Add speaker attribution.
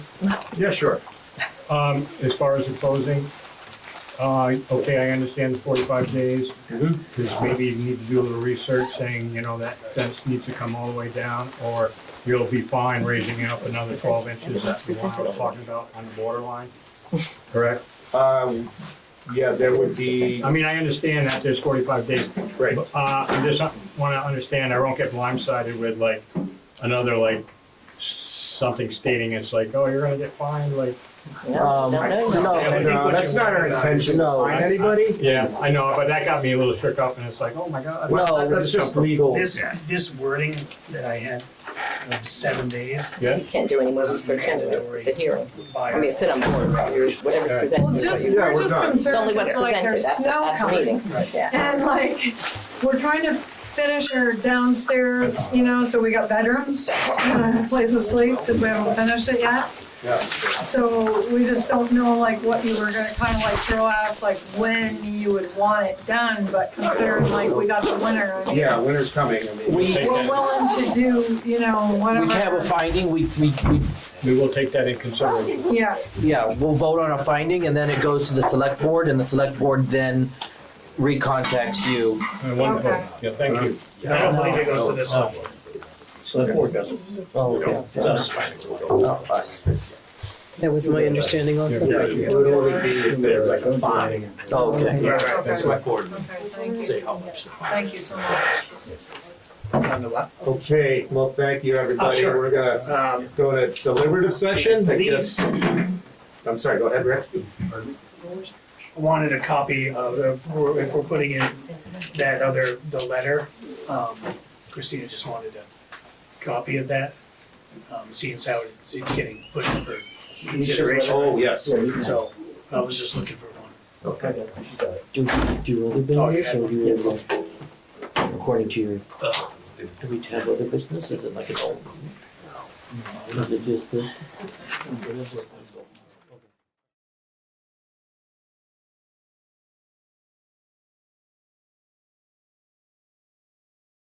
Speaker 1: Yeah, sure. Um, as far as the closing, uh, okay, I understand the forty-five days. Cause maybe you need to do a little research saying, you know, that fence needs to come all the way down, or you'll be fine raising it up another twelve inches. That's the one I was talking about on the borderline, correct?
Speaker 2: Um, yeah, there would be,
Speaker 1: I mean, I understand that there's forty-five days,
Speaker 2: right,
Speaker 1: but, uh, I just wanna understand, I won't get blindsided with like, another like, something stating it's like, oh, you're gonna get fined, like,
Speaker 3: No,
Speaker 4: Um,
Speaker 3: no, no, no.
Speaker 4: no,
Speaker 1: Yeah, I think
Speaker 2: no,
Speaker 1: what
Speaker 2: uh, that's
Speaker 1: you
Speaker 2: not our
Speaker 1: want-
Speaker 2: intention to
Speaker 4: No.
Speaker 2: find anybody.
Speaker 1: Yeah, I know, but that got me a little shook up, and it's like, oh my god.
Speaker 4: No,
Speaker 2: That- That's just legal.
Speaker 5: This, this wording that I had of seven days
Speaker 1: Yeah,
Speaker 3: You can't do any more research into it, it's a hearing. I mean,
Speaker 5: by,
Speaker 3: sit on board, right? You're- whatever's
Speaker 6: Well,
Speaker 3: presented. is what
Speaker 6: just,
Speaker 3: you-
Speaker 2: Yeah,
Speaker 6: we're
Speaker 2: we're
Speaker 6: just
Speaker 2: done.
Speaker 3: It's only
Speaker 6: concerned,
Speaker 3: what's
Speaker 6: that, like,
Speaker 3: presented
Speaker 6: there's
Speaker 3: at the,
Speaker 6: snow
Speaker 3: at the
Speaker 6: coming.
Speaker 3: meeting, yeah.
Speaker 6: And like, we're trying to finish our downstairs, you know, so we got bedrooms, uh, place to sleep, because we haven't finished it yet.
Speaker 2: Yeah.
Speaker 6: So we just don't know like what you were gonna kind of like throw out, like when you would want it done, but considering like we got the winter. I mean,
Speaker 2: Yeah, winter's coming, I mean.
Speaker 4: We,
Speaker 6: We're willing to do, you know,
Speaker 4: we
Speaker 6: whatever.
Speaker 4: have a finding, we, we, we,
Speaker 1: we will take that in consideration.
Speaker 6: Yeah,
Speaker 4: yeah, we'll vote on a finding and then it goes to the select board and the select board then recontacts you.
Speaker 1: Uh, Wonderful,
Speaker 6: Okay.
Speaker 1: yeah, thank you.
Speaker 5: I don't believe it goes to this
Speaker 2: Oh, Uh,
Speaker 5: level.
Speaker 7: Select board does it.
Speaker 4: Oh, yeah.
Speaker 7: It's us.
Speaker 4: Oh, us.
Speaker 8: That was my understanding also.
Speaker 2: Yeah, it would only be if there's like a fine.
Speaker 4: Oh, okay.
Speaker 5: Right, right.
Speaker 6: okay,
Speaker 2: That's
Speaker 6: okay,
Speaker 2: what board,
Speaker 6: thank you,
Speaker 7: Say how much.
Speaker 6: thank you so much.
Speaker 5: On the what?
Speaker 2: okay, well, thank you, everybody,
Speaker 5: sure.
Speaker 2: we're gonna
Speaker 5: Um,
Speaker 2: go to deliberative session, I
Speaker 5: Leave.
Speaker 2: guess. I'm sorry, go ahead, Rick.
Speaker 5: wanted a copy of, if we're, if we're putting in that other, the letter, um, Christina just wanted a copy of that. Um, seeing as how it's, it's getting put in for
Speaker 2: Oh,
Speaker 5: consideration,
Speaker 2: yes,
Speaker 5: so I was just looking for one.
Speaker 2: okay.
Speaker 7: Do, do you other
Speaker 5: Oh,
Speaker 7: business
Speaker 5: yeah. Uh,
Speaker 7: or do you have, according to your, do we have other business? Is it like an old? Is it just this?